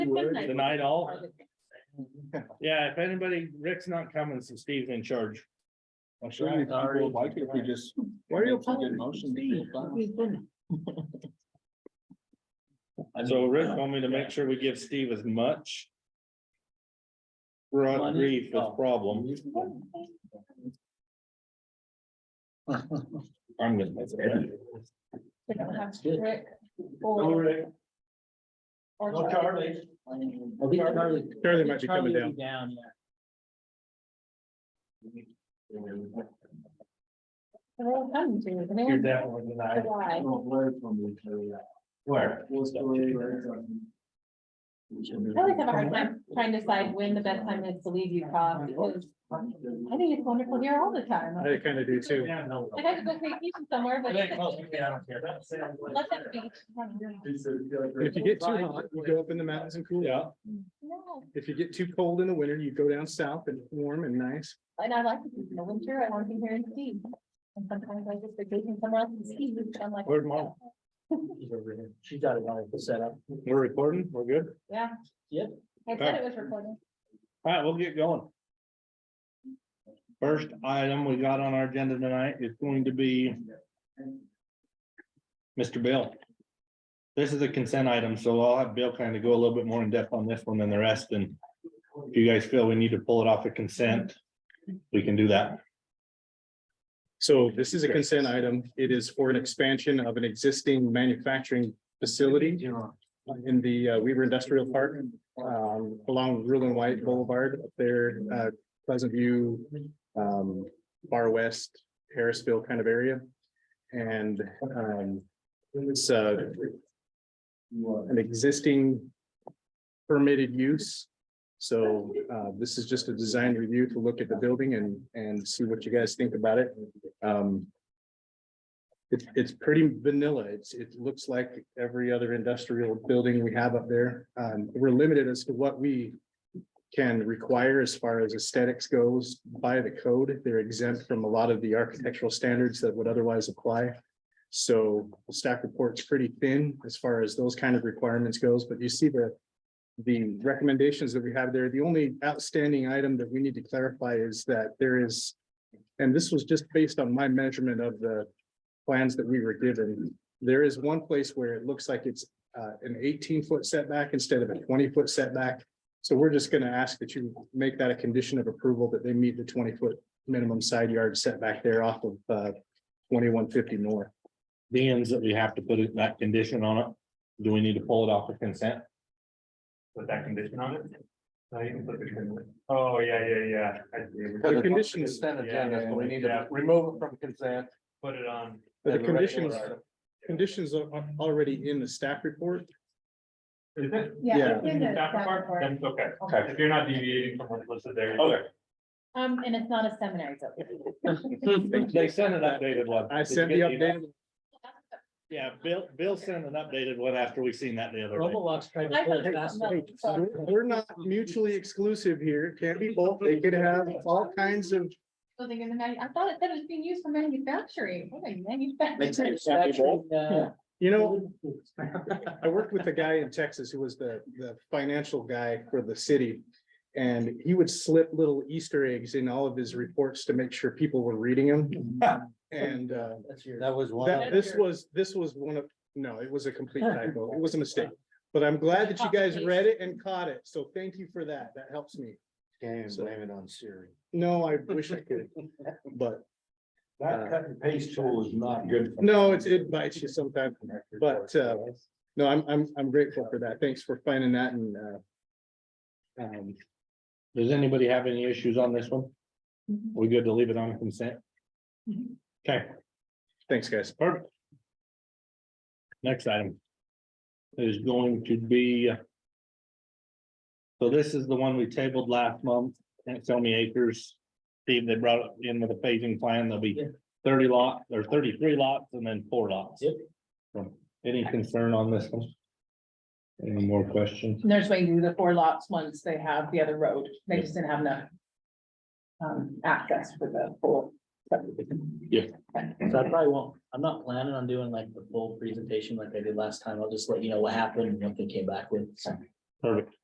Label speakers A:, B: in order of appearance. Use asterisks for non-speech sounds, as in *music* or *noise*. A: word,
B: Midnight.
A: denied all.
C: Yeah.
A: Yeah, if anybody, Rick's not coming, so Steve's in charge.
C: I'm sure if people would like it, if we just.
A: Where are you
C: make a good motion to get it done.
A: So Rick told me to make sure we give Steve as much. Rod
C: Money?
A: grief as
C: Oh.
A: problem. I'm gonna.
B: They don't have
C: Good.
B: Rick
C: No,
B: Or.
C: Rick.
B: or
C: No, Charlie. I think Charlie-
A: Charlie might be coming
C: Charlie will be Down,
B: They're all coming to you, they're
D: You're
B: all-
D: definitely denied.
B: Why?
D: Where?
B: I always have a hard time trying to decide when the best time is to leave Utah, because I think it's wonderful here all the time.
E: I kind of do too.
D: Yeah, no.
B: I'd have to go vacation somewhere, but.
D: It ain't close to me, I don't care. That's-
B: Let that be.
E: If you get too hot, you go up in the mountains and cool. Yeah.
B: No,
E: If you get too cold in the winter, you go down south and it's warm and nice.
B: and I like to be in the winter, I want to be here in Steve. And sometimes I just vacation somewhere else in Steve, I'm like.
A: Where's mom?
D: She got it all set up.
A: We're recording, we're good.
B: Yeah.
D: Yep.
B: I said it was recording.
A: All right, we'll get going. First item we got on our agenda tonight is going to be Mr. Bill. This is a consent item, so I'll have Bill kind of go a little bit more in depth on this one than the rest, and if you guys feel we need to pull it off of consent, we can do that.
E: So this is a consent item. It is for an expansion of an existing manufacturing facility in the uh, Weaver Industrial Park um, along Rural and White Boulevard up there, uh, Pleasant View, um, Far West, Harrisville kind of area. And um, it's uh, an existing permitted use. So uh, this is just a design review to look at the building and, and see what you guys think about it. Um, It's, it's pretty vanilla. It's, it looks like every other industrial building we have up there. Um, We're limited as to what we can require as far as aesthetics goes by the code. They're exempt from a lot of the architectural standards that would otherwise apply. So the staff report's pretty thin as far as those kind of requirements goes, but you see the. The recommendations that we have there, the only outstanding item that we need to clarify is that there is. And this was just based on my measurement of the plans that we were given. There is one place where it looks like it's uh an eighteen foot setback instead of a twenty foot setback. So we're just gonna ask that you make that a condition of approval that they meet the twenty foot minimum side yard setback there off of uh twenty-one fifty north.
A: Being that we have to put it- that condition on it, do we need to pull it off of consent?
F: Put that condition on it? No, Uh, you can put the condition. Oh, yeah, yeah, yeah. I see.
E: The conditions-
F: Consent agenda, so we need to
D: remove it from consent.
F: Put it on.
E: But the
F: as a regular
E: conditions-
F: item.
E: Conditions are are already in the staff report.
F: Is it?
E: Yeah.
B: it's in the
F: Staff
B: staff
F: report?
B: report.
F: Then it's Okay, if you're not deviating from what's listed there.
A: Okay.
B: Um, and it's not a seminary, so.
G: *laughs*
A: They sent an updated one.
E: I sent the updated
A: Yeah, Bill, Bill sent an updated one after we seen that the other day.
D: Roblox tried to
B: I
D: pull
B: thought
D: it last
B: it
D: night.
B: was-
E: We're not mutually exclusive here. It Can't be both. They could have all kinds of.
B: So they're gonna manu- I thought it said it was being used for manufacturing. What a
G: *laughs*
B: manufacturing.
D: Manufacturing, uh,
E: You know, I worked with a guy in Texas who was the, the financial guy for the city. And he would slip little Easter eggs in all of his reports to make sure people were reading them. And, uh,
D: That's your.
C: That was one.
E: that, this was, this was one of, no, it was a complete typo. It was a mistake. But I'm glad that you guys read it and caught it. So thank you for that. That helps me.
C: Can't
E: So-
C: even blame it on Siri.
E: No, I wish I could, but
A: Uh,
C: That cut and paste tool is not good.
E: no, it's, it bites you sometimes. But, uh, No, I'm, I'm, I'm grateful for that. Thanks for finding that and, uh, um,
A: Does anybody have any issues on this one? We good to leave it on consent?
B: Mhm.
A: Okay,
E: thanks, guys.
A: perfect. Next item. Is going to be. uh, So this is the one we tabled last month, and it's only acres. Steve, they brought it in with a phasing plan, there'll be
D: Yeah.
A: thirty lot, or thirty-three lots and then four lots.
D: Yep.
A: Um, Any concern on this one? Any more questions?
G: There's way to do the four lots once they have the other road. They just didn't have enough. Um, access for the full.
D: So I probably won't, I'm not planning on doing like the full presentation like I did last time. I'll just let you know what happened and what they came back with. So
A: Perfect.